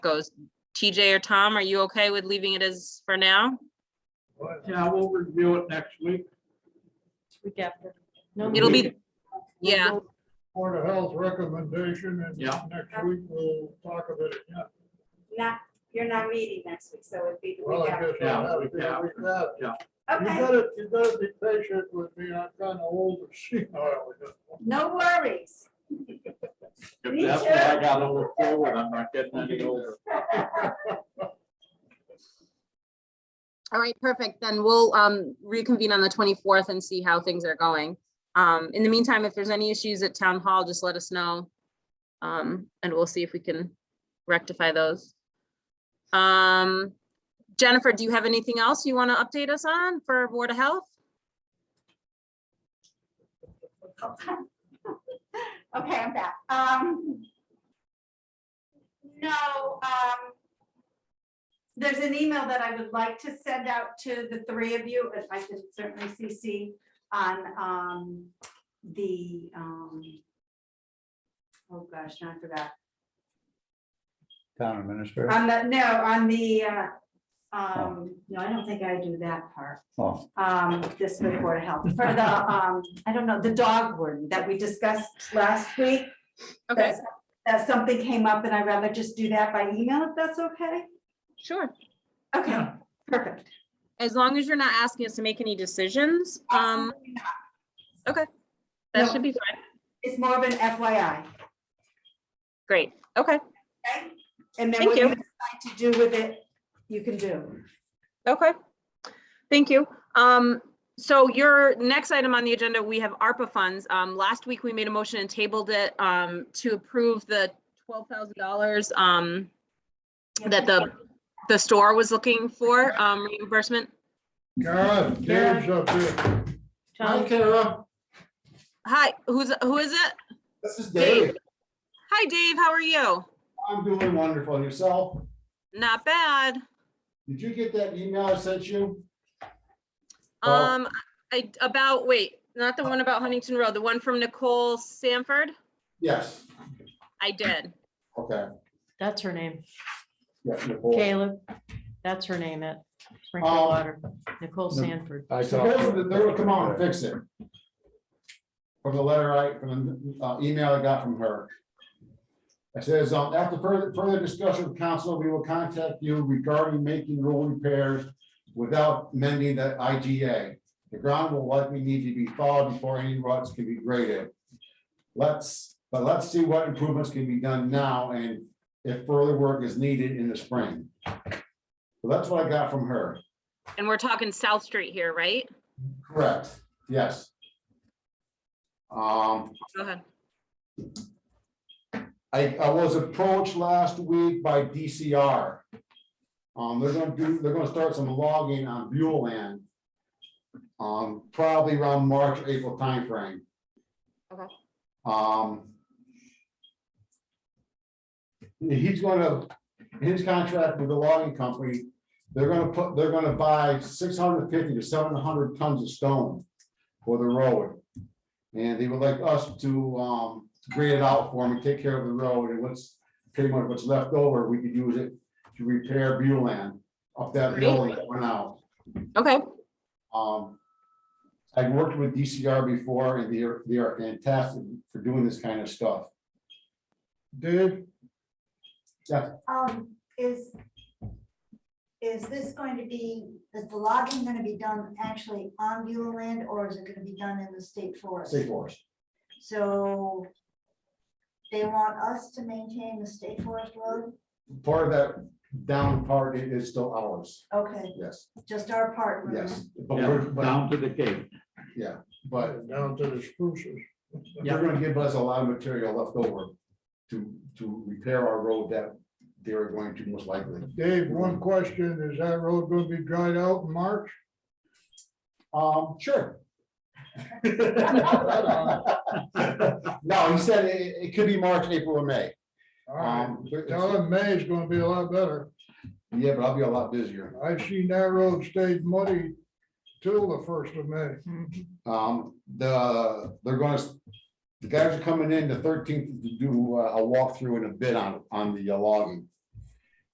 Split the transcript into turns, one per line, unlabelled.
goes. TJ or Tom, are you okay with leaving it as for now?
Yeah, we'll review it next week.
Week after. No,
It'll
week-
be, yeah,
Board of Health recommendation and
Yeah.
next week we'll talk of it again.
Not, you're not meeting next week, so it'd be the
Well,
week
I
after.
guess I'll have to be
Yeah,
like that. You
Okay,
gotta, you gotta be patient with me. I'm kind of old as she.
no worries.
If that's what I got over forward, I'm not getting any older.
all right, perfect. Then we'll um reconvene on the twenty-fourth and see how things are going. Um, in the meantime, if there's any issues at town hall, just let us know. Um, and we'll see if we can rectify those. Um, Jennifer, do you have anything else you want to update us on for Board of Health?
Okay, I'm back. Um, no, um, there's an email that I would like to send out to the three of you, if I could certainly CC on, um, the, um, oh gosh, now I forgot.
Town administrator.
On the, Um, no, on the, uh, um, no, I don't think I do that part.
Oh,
um, this with Board of Health, for the, um, I don't know, the dog warden that we discussed last week.
Okay,
That's- That something came up and I'd rather just do that by email if that's okay.
sure.
Okay, perfect.
As long as you're not asking us to make any decisions, um, that
No.
should be fine.
It's more of an FYI,
Great, okay,
okay? And then
Thank
what
you.
you decide to do with it, you can do.
okay. Thank you. Um, so your next item on the agenda, we have ARPA funds. Um, last week we made a motion and tabled it, um, to approve the twelve thousand dollars, um, that the, the store was looking for, um, reimbursement.
Karen, Dave's up here.
Tom,
Kara.
Hi, who's, who is it?
This is
Dave.
Hi, Dave, how are you?
I'm doing wonderful. And Yourself?
Not bad.
Did you get that email I sent you? Oh.
Um, I, about, wait, not the one about Huntington Road, the one from Nicole Sanford?
Yes.
I did.
Okay.
that's her name,
Yeah, Nicole.
Caleb, that's her name at Springfield
Um,
Water, Nicole Sanford.
I talked.
Supposedly
to-
They would come out and fix it. From the letter I, from the uh, email I got from her. It says, um, after further, further discussion with council, we will contact you regarding making road repairs without mending the IGA. The ground will likely need to be thawed before any ruts can be graded. Let's, but let's see what improvements can be done now and if further work is needed in the spring. So That's what I got from her.
And we're talking South Street here, right?
Correct, yes. Um,
Go ahead.
I, I was approached last week by DCR. Um, they're gonna do, they're gonna start some logging on Buell land. Um, probably around March, April timeframe.
Okay.
Um. He's gonna, his contract with the logging company, they're gonna put, they're gonna buy six hundred fifty to seven hundred tons of stone for the road. And they would like us to, um, grade it out for them and take care of the road and what's, pretty much what's left over, we could use it to repair Buell land up that
Great.
building that went out.
Okay,
Um, I've worked with DCR before and they are, they are fantastic for doing this kind of stuff.
Dave,
Um, is, is this going to be, is the logging gonna be done actually on Beulah land, or is it gonna be done in the state forest?
State Forest.
So they want us to maintain the state forest road?
Part of that down part i- is still ours,
Okay,
yes,
just our part. road.
yes. But
Yeah,
we're, but,
Down to the gate.
yeah, but
down to the spruces.
they're gonna give us a lot of material left over to, to repair our road that they're going to most likely.
Dave, one question, is that road gonna be dried out in March?
Um, sure. No, he said it, it could be March, April, or May.
All right,
Um, but-
tell him May is gonna be a lot better.
Yeah, but I'll be a lot busier.
I've seen that road stayed muddy till the first of May.
Um, the, they're gonna, s- the guys are coming in the thirteenth to do uh, a walkthrough and a bid on, on the uh, logging.